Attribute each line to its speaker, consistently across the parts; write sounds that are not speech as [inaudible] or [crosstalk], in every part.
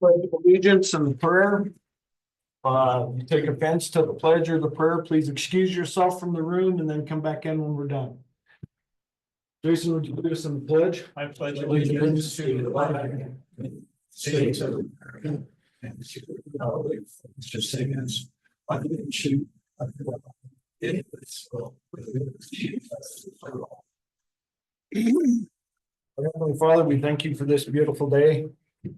Speaker 1: pledge of allegiance and the prayer. Uh, you take offense to the pledge or the prayer, please excuse yourself from the room and then come back in when we're done. Jason, would you do us in the pledge?
Speaker 2: I pledge
Speaker 1: allegiance to the flag
Speaker 2: States of America and to the Republic for which it stands, one nation, under God, indivisible, with liberty and justice for all.
Speaker 1: Our Heavenly Father, we thank you for this beautiful day.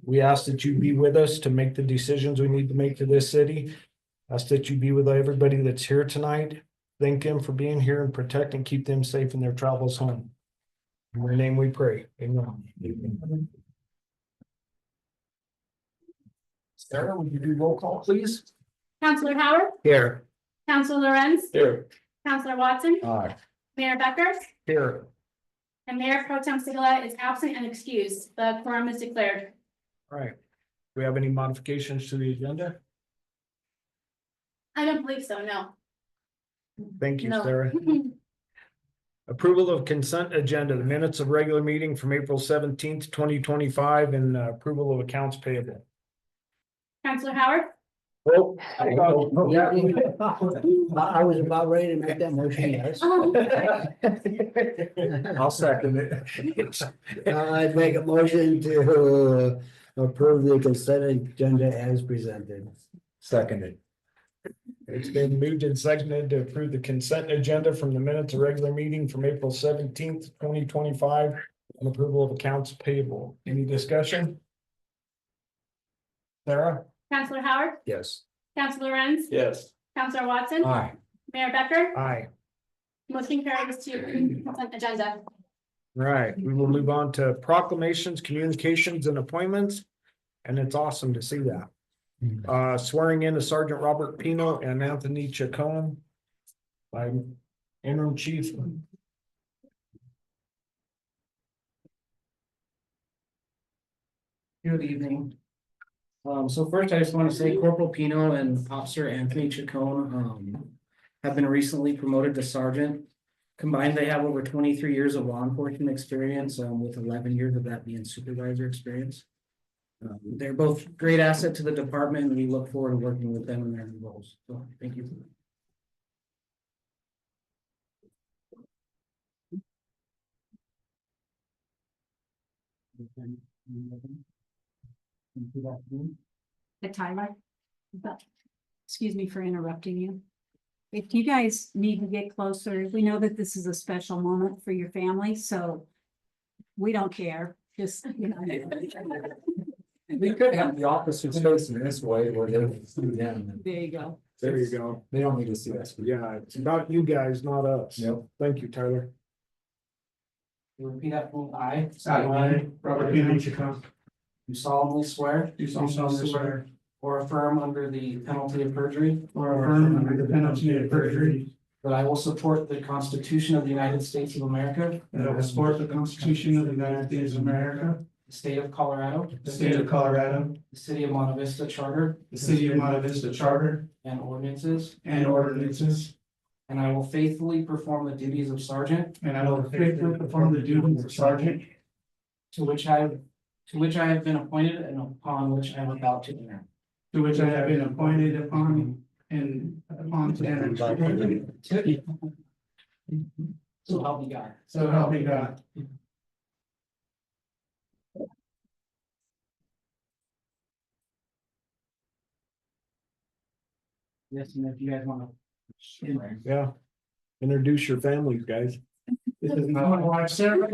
Speaker 1: We ask that you be with us to make the decisions we need to make to this city. Ask that you be with everybody that's here tonight. Thank them for being here and protect and keep them safe in their travels home. In your name we pray. Amen. Sarah, would you do roll call, please?
Speaker 3: Counselor Howard,
Speaker 1: Here.
Speaker 3: Counselor Lorenz,
Speaker 1: Here.
Speaker 3: Counselor Watson,
Speaker 1: Aye.
Speaker 3: Mayor Becker,
Speaker 1: Here.
Speaker 3: and Mayor Pro Tem Sigala is absent and excused. The quorum is declared.
Speaker 1: All right. Do we have any modifications to the agenda?
Speaker 3: I don't believe so, no. [laughs]
Speaker 1: Thank you,
Speaker 3: No.
Speaker 1: Sarah. Approval of consent agenda, the minutes of regular meeting from April seventeenth, twenty twenty-five, and uh, approval of accounts payable.
Speaker 3: Counselor Howard,
Speaker 1: Oh,
Speaker 4: Yeah, I I was about ready to make that motion, yes.
Speaker 3: um,
Speaker 1: [laughs] I'll second it.
Speaker 4: I'd make a motion to approve the consent agenda as presented.
Speaker 1: [laughs] Seconded. It's been moved and seconded to approve the consent agenda from the minutes of regular meeting from April seventeenth, twenty twenty-five. And approval of accounts payable. Any discussion? Sarah?
Speaker 3: Counselor Howard,
Speaker 1: Yes.
Speaker 3: Counselor Lorenz,
Speaker 1: Yes.
Speaker 3: Counselor Watson,
Speaker 1: Uh,
Speaker 4: Aye.
Speaker 3: Mayor Becker,
Speaker 1: Aye.
Speaker 3: motion carries to consent agenda.
Speaker 1: Right, we will move on to proclamations, communications and appointments. And it's awesome to see that. Uh, swearing in of Sergeant Robert Pino and Anthony Chacon. by interim chief.
Speaker 5: Good evening. Um, so first I just want to say Corporal Pino and Officer Anthony Chacon, um, have been recently promoted to sergeant. Combined, they have over twenty-three years of law enforcement experience, um, with eleven years of that being supervisor experience. Um, they're both great asset to the department and we look forward to working with them in their new roles. So thank you.
Speaker 6: the timer. But, excuse me for interrupting you. If you guys need to get closer, we know that this is a special moment for your family, so we don't care, just, you know.
Speaker 7: We could have the officers facing this way where they're through them.
Speaker 6: There you go.
Speaker 1: There you go.
Speaker 7: They don't need to see us.
Speaker 1: Yeah, it's about you guys, not us.
Speaker 7: Yep.
Speaker 1: Thank you, Tyler.
Speaker 5: Repeat after me. I.
Speaker 7: I,
Speaker 5: Robert Pino Chacon. You solemnly swear.
Speaker 7: You solemnly swear.
Speaker 5: Or affirm under the penalty of perjury.
Speaker 7: Or affirm under the penalty of perjury
Speaker 5: That I will support the Constitution of the United States of America,
Speaker 7: that I will support the Constitution of the United States of America,
Speaker 5: the state of Colorado.
Speaker 7: the state of Colorado,
Speaker 5: The city of Monte Vista Charter
Speaker 7: the city of Monte Vista Charter
Speaker 5: and ordinances,
Speaker 7: and ordinances,
Speaker 5: and I will faithfully perform the duties of sergeant
Speaker 7: and I will faithfully perform the duties of sergeant
Speaker 5: to which I to which I have been appointed and upon which I am about to enter.
Speaker 7: to which I have been appointed upon and upon to enter.
Speaker 5: So help me God.
Speaker 7: So help me God.
Speaker 5: Yes, and if you guys want to.
Speaker 1: Yeah. Introduce your families, guys.
Speaker 7: This is my wife Sarah,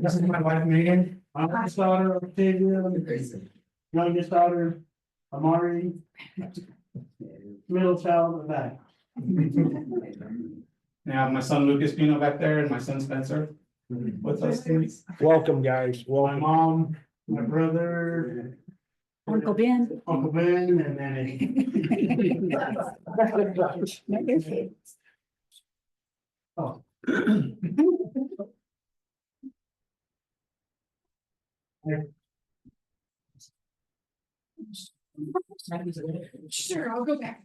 Speaker 7: this is my wife Megan, my youngest daughter Octavia, youngest daughter Amari. Middle child of that. Now, my son Lucas Pino back there and my son Spencer with us. too.
Speaker 1: Welcome, guys.
Speaker 7: My
Speaker 1: Welcome.
Speaker 7: mom, my brother,
Speaker 6: Uncle Ben.
Speaker 7: Uncle Ben, and then.
Speaker 6: Sure, I'll go back.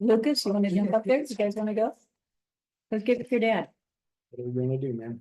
Speaker 6: Lucas, you wanna jump up there? You guys wanna go? Let's give it to your dad.
Speaker 1: What are we gonna do, man?